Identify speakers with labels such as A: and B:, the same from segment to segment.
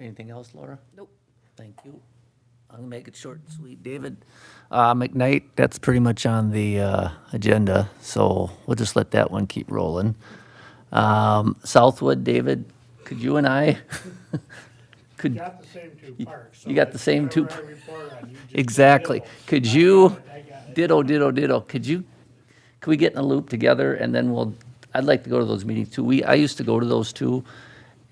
A: Anything else, Laura?
B: Nope.
A: Thank you. I'm gonna make it short and sweet. David, uh, McKnight, that's pretty much on the, uh, agenda, so we'll just let that one keep rolling. Um, Southwood, David, could you and I, could,
C: Got the same two parks. so
A: Mm. you got the same two
C: whatever I report on, you just
A: exactly.
C: deal.
A: Could you,
C: I got it.
A: ditto, ditto, ditto, could you, could we get in a loop together and then we'll, I'd like to go to those meetings too. We, I used to go to those too,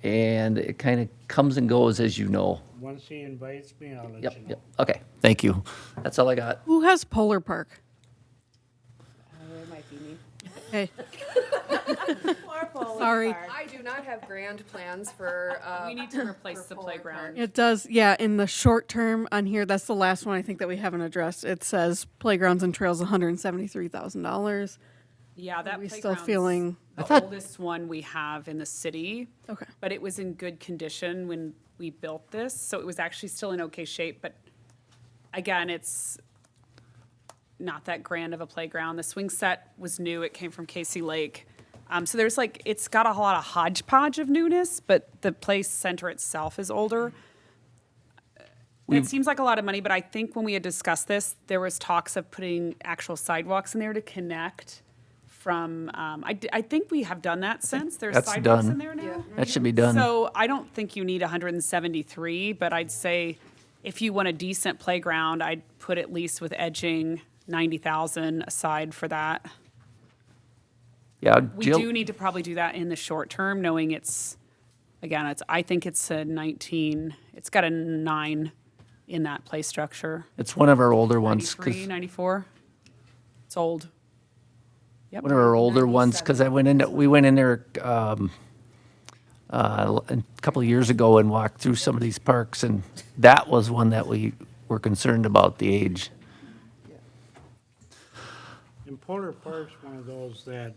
A: and it kind of comes and goes, as you know.
C: Once he invites me, I'll let
A: Yep,
C: you know.
A: yep, okay, thank you. That's all I got.
D: Who has Polar Park?
B: It might be me.
D: Hey,
E: Poor Polar
D: Sorry.
E: Park.
B: I do not have grand plans for, uh.
F: We need to replace the
B: Polar Park.
F: playground.
D: it does, yeah, in the short term on here, that's the last one I think that we haven't addressed. It says playgrounds and trails, hundred and seventy-three thousand dollars.
F: Yeah, that
D: we still
F: playground's
D: feeling- I
F: The
A: thought-
F: oldest one we have in the city.
D: Okay.
F: But it was in good condition when we built this, so it was actually still in okay shape, but again, it's not that grand of a playground. The swing set was new, it came from Casey Lake. Um, so there's like, it's got a whole lot of hodgepodge of newness, but the play center itself is older. Uh, It seems like a lot of money, but I think when we had discussed this, there was talks of putting actual sidewalks in there to connect from, um, I, d- I think we have done that since. There's
A: that's
F: sidewalks
A: done.
F: in there now.
A: That should be done.
F: So I don't think you need 173, but I'd say if you want a decent playground, I'd put at least with edging 90,000 aside for that.
A: Yeah,
F: We do
A: Jill,
F: need to probably do that in the short term, knowing it's, again, it's, I think it's a 19, it's got a nine in that play structure.
A: it's one of our older ones, 'cause-
F: 93, 94. It's old.
A: one of our older ones, because I went in, we went in there um, uh, a couple of years ago and walked through some of these parks, and that was one that we were concerned about the age.
C: And Polar Park's one of those that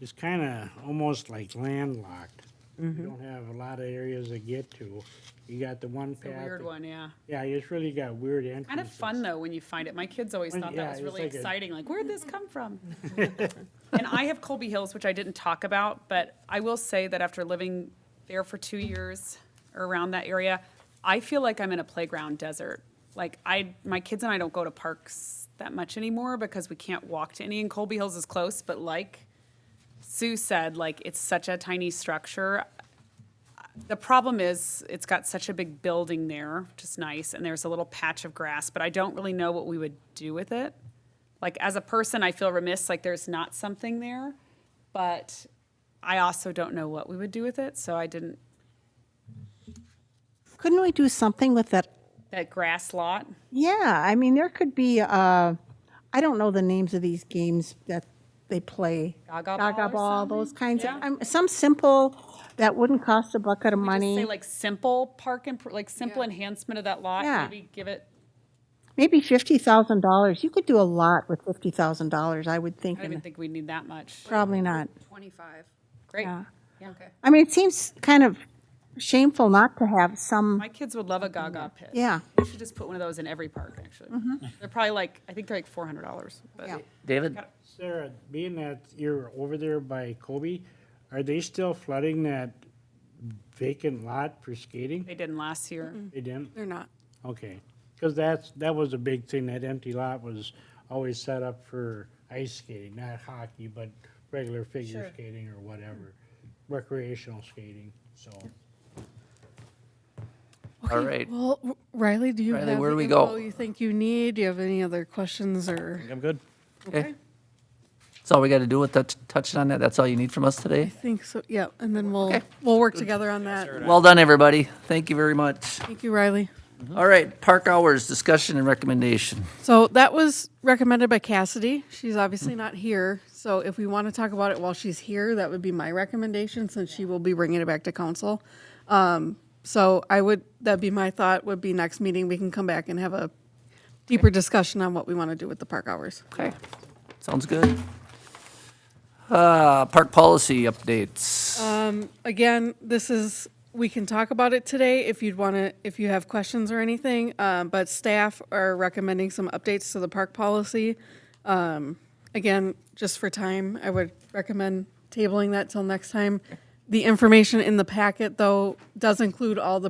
C: is kind of almost like landlocked. You
F: Mm-hmm.
C: don't have a lot of areas to get to. You got the one
F: It's a
C: path.
F: weird
C: that-
F: one, yeah.
C: Yeah, it's really got weird entrances.
F: Kind of fun though when you find it. My kids always
C: When-
F: thought
C: yeah,
F: that was
C: it's
F: really
C: like a-
F: exciting. Like, where'd this come from? and I have Colby Hills, which I didn't talk about, but I will say that after living there for two years or around that area, I feel like I'm in a playground desert. Like I, my kids and I don't go to parks that much anymore because we can't walk to any. And Colby Hills is close, but like Sue said, like it's such a tiny structure. The problem is, it's got such a big building there, which is nice, and there's a little patch of grass, but I don't really know what we would do with it. Like, as a person, I feel remiss, like there's not something there, but I also don't know what we would do with it, so I didn't,
G: Couldn't we do something with that?
F: that grass lot.
G: Yeah, I mean, there could be, uh, I don't know the names of these games that they play.
F: Gaga ball or
G: Gaga ball, those
F: something?
G: kinds of,
F: Yeah.
G: um, some simple, that wouldn't cost a bucket of
F: We just Say
G: money.
F: like simple park, and like simple enhancement of that lot,
G: Yeah.
F: maybe give it,
G: Maybe fifty thousand dollars. You could do a lot with fifty thousand dollars, I would think.
F: I don't even
G: and
F: think we need that much.
G: Probably not.
B: Twenty-five.
F: Great.
G: Yeah.
B: Okay.
G: I mean, it seems kind of shameful not to have some,
F: My kids would love a Gaga pit.
G: yeah. Mm-hmm.
F: We should just put one of those in every park, actually. They're probably like, I think they're like four hundred dollars, but.
G: Yeah.
A: David,
C: Sarah, being that you're over there by Kobe, are they still flooding that vacant lot for skating?
F: They didn't last year.
C: They didn't?
D: They're not.
C: Okay, because that's, that was a big thing, that empty lot was always set up for ice skating, not hockey, but regular figure skating or whatever, recreational skating, so.
A: all right.
D: Well, R- Riley, do you
A: Riley,
D: have
A: where
D: the
A: do we
D: info
A: go?
D: you think you need? Do you have any other questions or?
H: I'm good.
A: Okay. That's all we got to do with touch- touching on that? That's all you need from us today?
D: I think so, yeah, and then we'll, we'll work together on that.
A: Well done, everybody. Thank you very much.
D: Thank you, Riley.
A: All right, park hours, discussion and recommendation.
D: So that was recommended by Cassidy. She's obviously not here. So if we want to talk about it while she's here, that would be my recommendation since she will be bringing it back to council. Um, so I would, that'd be my thought would be next meeting, we can come back and have a deeper discussion on what we want to do with the park hours.
A: Okay, sounds good. Uh, Park policy updates.
D: again, this is, we can talk about it today if you'd want to, if you have questions or anything, um, but staff are recommending some updates to the park policy. Um, again, just for time, I would recommend tabling that till next time. The information in the packet, though, does include all the